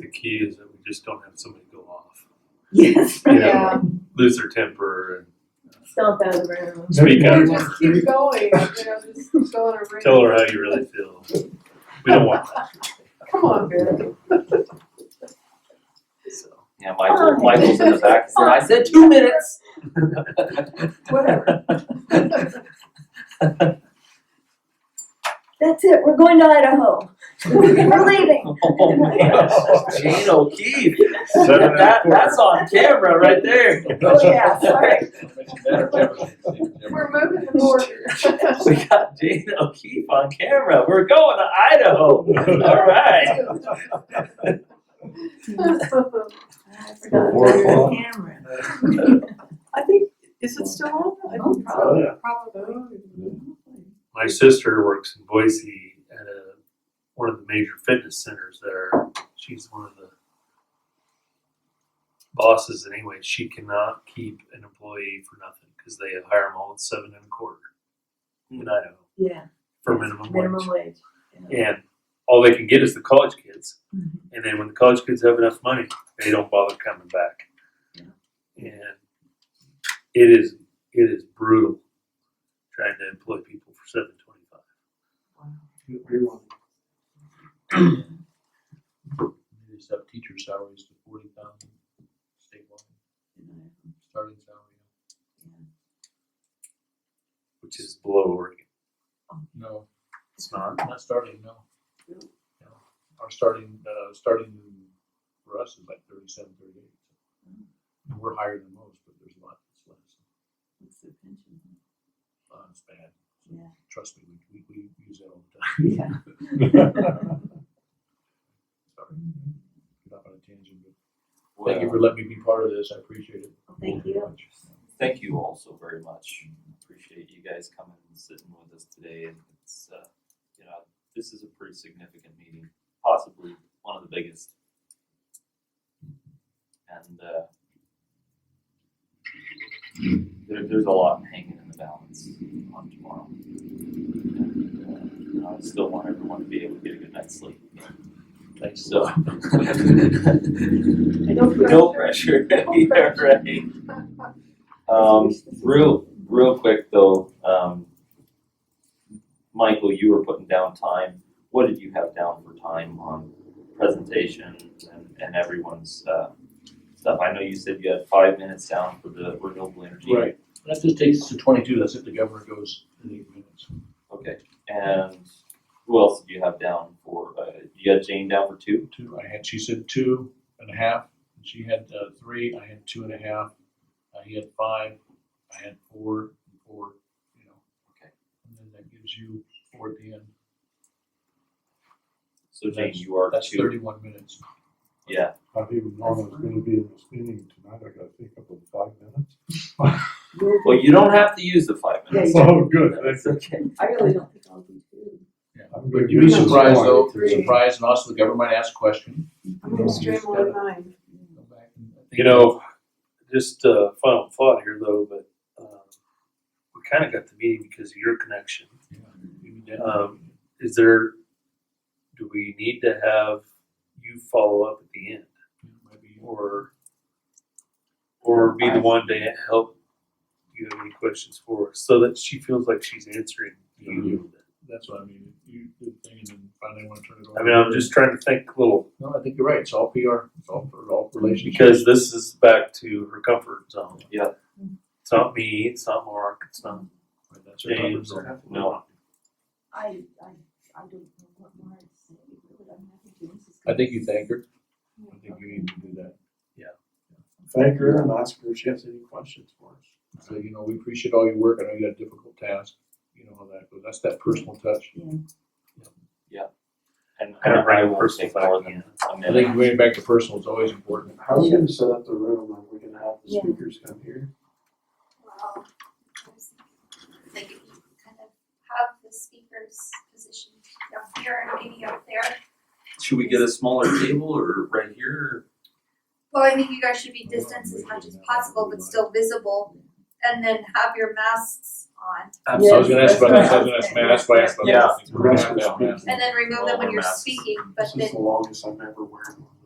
the key is that we just don't have somebody go off, Yes. Yeah. Yeah, lose their temper, Stomp out of the room. and speak or up, uh, just keep going, you know, just go in a ring. tell her how you really feel. We don't want that. Come on, Barry. So. Yeah, Michael, Michael's in the back, saying, I said two minutes. Whatever. That's it, we're going to Idaho. We're leaving. Oh, man, Jane O'Keefe, Seven and a that, that's on camera right there. Oh, yeah, sorry. We're moving the border. We got Jane O'Keefe on camera, we're going to Idaho, all right. I Well, forgot four about o'clock. the camera. I think, is it still on? I think probably, yeah. probably. my sister works in Boise at a, one of the major fitness centers there. She's one of the bosses anyway. She cannot keep an employee for nothing because they hire them all at seven and a quarter in Idaho Yeah. for minimum wage. Minimum wage. And all they can get is the college kids. Mhm. And then when the college kids have enough money, they don't bother coming back. And it is it is brutal trying to employ people for seven twenty five. Just up teacher salaries to forty thousand statewide, starting salary. which is below Oregon. No, It's not. not starting, no. No. Our starting, uh, starting for us is like thirty-seven, thirty-eight. And we're higher than most, but there's a lot that's less, uh, it's bad. So Yeah. Trust me, we, we, we use that all the time. Yeah. Sorry, get off on a tangent, but thank you for letting me be part of this, I appreciate it. Well, Thank you. Thank you also very much. Appreciate you guys coming and sitting with us today. And it's, uh, you know, this is a pretty significant meeting, possibly one of the biggest. And uh, there, there's a lot hanging in the balance on tomorrow. And, uh, I still want everyone to be able to get a good night's sleep. Thanks. So, No no pressure. Yeah, right. Um, real, real quick though, um, Michael, you were putting down time. What did you have down for time on presentation and, and everyone's, uh, stuff? I know you said you had five minutes down for the renewable energy. Right, that just takes us to twenty-two, that's if the governor goes in eight minutes. Okay, and who else did you have down for, uh, you had Jane down for two? Two, I had, she said two and a half, and she had, uh, three, I had two and a half, uh, he had five, I had four, and four, you know. Okay. And then that gives you four at the end, So Jane, That's- you are that's two, thirty-one minutes. yeah, I think Norman's gonna be in this meeting tonight, I gotta think up in five minutes. well, you don't have to use the five minutes. Oh, good, thank That's okay. I really don't think I'll be too. I'm gonna But you'd be use this surprised one. though, Three. surprised, and also the governor might ask a question. I'm gonna scramble at nine. Go back and I think- You know, just uh, final thought here though, but um, we kind of got the meeting because of your connection. Yeah, even then. Um, Is there? Do we need to have you follow up at the end, Yeah, might be- or or be the one to help? You have any questions for her, so that she feels like she's answering you. That's what I mean, you do the thing and then finally wanna turn it over. I mean, I'm just trying to think a little No, I think you're right, it's all PR, it's all, it's all relationships. because this is back to her comfort zone. Yeah. It's not me. It's not Mark. It's not Right, That's our James. comfort zone. No. I, I, I don't know what more to say. Really, I'm happy to. This is I good. think you thank her. I think you need to do that. Thank her and ask her if she has any questions for us. So, you know, we appreciate all your work. I know you got a difficult task. You know how that goes. That's that personal touch. And Kind of I bring will personal take back more in. than a I minute. think going back to personal is always important. How are we gonna set up the room, are we gonna have the Yeah. speakers come here? Well, I was thinking, like, if you kind of have the speaker's position up here and maybe up there. Should we get a smaller table or right here? Well, I think you guys should be distanced as much as possible, but still visible, and then have your masks on, So I was gonna ask about that. Yes. I was gonna ask, man, that's why I asked about that. We're gonna have Yeah. speakers. and then remove them when Or you're masks. speaking, but This then is the longest I've ever worn one.